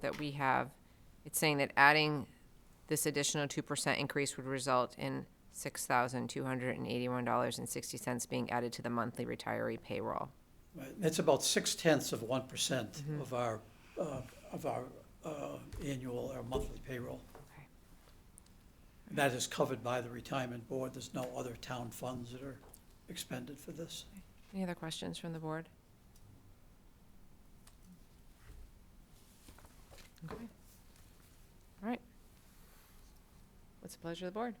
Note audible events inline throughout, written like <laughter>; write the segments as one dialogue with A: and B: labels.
A: that we have, it's saying that adding this additional two percent increase would result in six thousand two hundred and eighty-one dollars and sixty cents being added to the monthly retiree payroll.
B: Right, That's about six tenths of one percent
C: Mm-hmm.
B: of our, uh, of our uh, annual or monthly payroll.
A: Okay.
B: That is covered by the retirement board. There's no other town funds that are expended for this.
A: Any other questions from the board? Okay. All right. What's the pleasure of the board?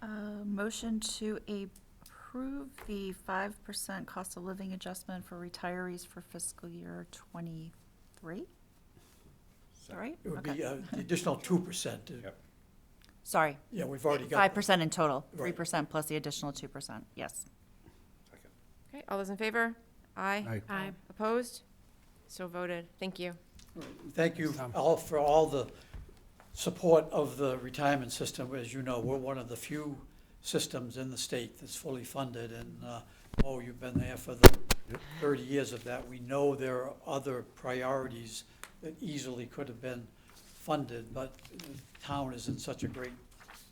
C: Uh, Motion to approve the five percent cost of living adjustment for retirees for fiscal year twenty-three? Is that right?
B: It would
C: Okay.
B: be uh, the additional two percent.
D: Yep.
C: Sorry,
B: Yeah, we've already got.
C: five percent in total, three
B: Right.
C: percent plus the additional two percent, yes.
D: Second.
A: Okay, all those in favor? Aye.
D: Aye.
A: Aye. Opposed? So voted. Thank you.
B: Thank you all for all the support of the retirement system. As you know, we're one of the few systems in the state that's fully funded, and, uh, oh, you've been there for the thirty years of that. We know there are other priorities that easily could have been funded, but the town is in such a great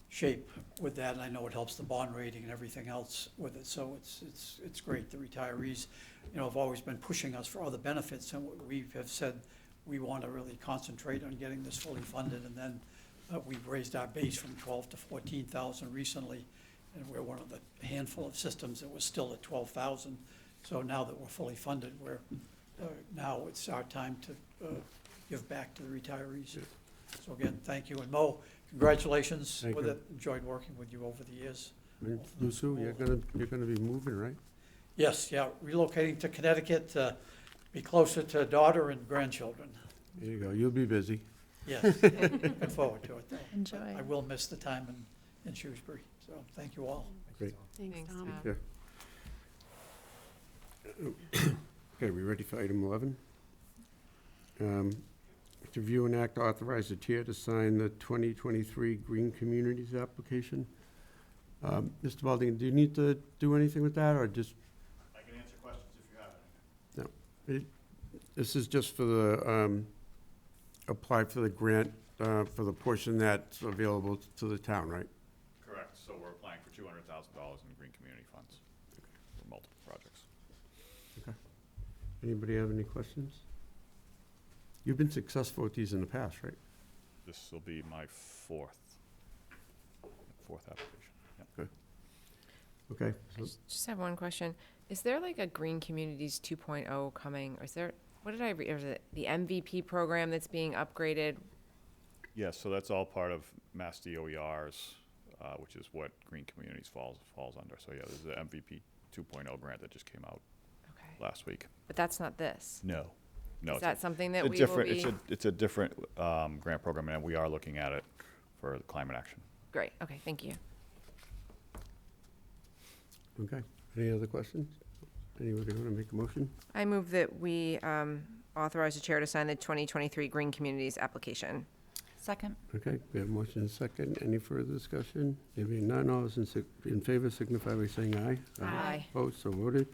B: shape with that, and I know it helps the bond rating and everything else with it, so it's, it's, it's great. The retirees, you know, have always been pushing us for other benefits, and we have said we want to really concentrate on getting this fully funded, and then uh, we've raised our base from twelve to fourteen thousand recently, and we're one of the handful of systems that was still at twelve thousand. So now that we're fully funded, we're, uh, now it's our time to uh, give back to the retirees. So again, thank you, and Mo, congratulations
E: Thank
B: with
E: you.
B: it, enjoyed working with you over the years.
E: Lou Sue, you're gonna, you're gonna be moving, right?
B: Yes, yeah, relocating to Connecticut to be closer to daughter and grandchildren.
E: There you go, you'll be busy.
B: Yes,
E: <laughs>
B: looking forward to it, though.
C: Enjoy.
B: I will miss the time in, in Shrewsbury, so thank you all.
E: Great.
A: Thanks, Tom.
E: Yeah. Okay, we ready for item eleven? Um, To view and act authorize the chair to sign the twenty twenty-three Green Communities application. Um, Mr. Balding, do you need to do anything with that, or just,
D: I can answer questions if you have any.
E: this is just for the, um, apply for the grant, uh, for the portion that's available to the town, right?
D: Correct, so we're applying for two hundred thousand dollars in green community funds for multiple projects.
E: Anybody have any questions? You've been successful with these in the past, right?
D: This will be my fourth, fourth application.
E: Okay,
A: I
E: so
A: just- Just have one question. Is there like a Green Communities 2.0 coming, or is there, what did I read, or is it the MVP program that's being upgraded?
D: Yeah, so that's all part of Mass DOER's, uh, which is what green communities falls, falls under. So yeah, there's the MVP two oh grant that just came out
A: Okay,
D: last week.
A: but that's not this.
D: No. No,
A: Is
D: it's a-
A: that something
D: it's
A: that
D: a
A: we will
D: different- It's
A: be?
D: a, it's a different, um, grant program and we are looking at it for climate action.
A: Great, okay, thank you.
E: Okay, any other questions? Anybody want to make a motion?
A: I move that we um, authorize the chair to sign the 2023 Green Communities application.
C: Second,
E: Okay, we have motion and second. Any further discussion? There being none, all those in sig- in favor signify by saying aye.
A: Aye.
E: Opposed, so voted.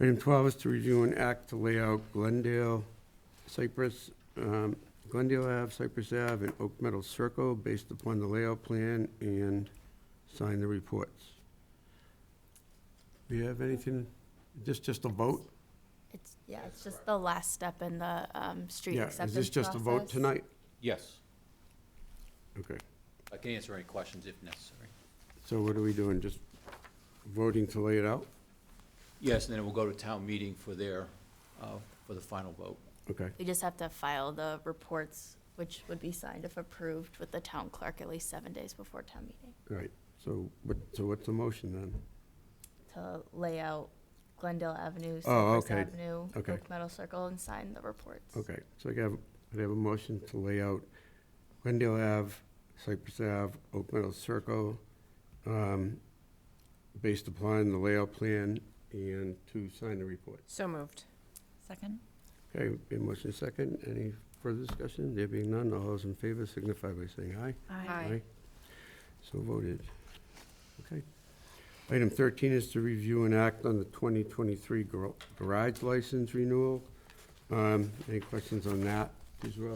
E: Item 12 is to review an act to lay out Glendale, Cypress, um, Glendale Ave, Cypress Ave, and Oak Meadow Circle based upon the layout plan and sign the reports. Do you have anything, this just a vote?
F: It's, yeah, it's just the last step in the um, street
E: Yeah,
F: acceptance
E: is this just a vote
F: process.
E: tonight?
G: Yes,
E: Okay,
G: I can answer any questions if necessary.
E: so what are we doing, just voting to lay it out?
G: Yes, and then it will go to town meeting for their, uh, for the final vote.
E: Okay,
F: We just have to file the reports, which would be signed if approved with the town clerk at least seven days before town meeting,
E: all right, so what, so what's the motion then?
F: to lay out Glendale Avenue,
E: Oh,
F: Cypress
E: okay.
F: Avenue,
E: Okay.
F: Oak Meadow Circle, and sign the reports.
E: Okay, so I have, I have a motion to lay out Glendale Ave, Cypress Ave, Oak Meadow Circle, um, based upon the layout plan and to sign the report.
A: So moved.
C: second,
E: Okay, a motion is second, any further discussion? There being none, all those in favor signify by saying aye.
A: Aye.
E: So voted. Okay. Item 13 is to review and act on the 2023 gar- garage license renewal. Um, Any questions on that as well?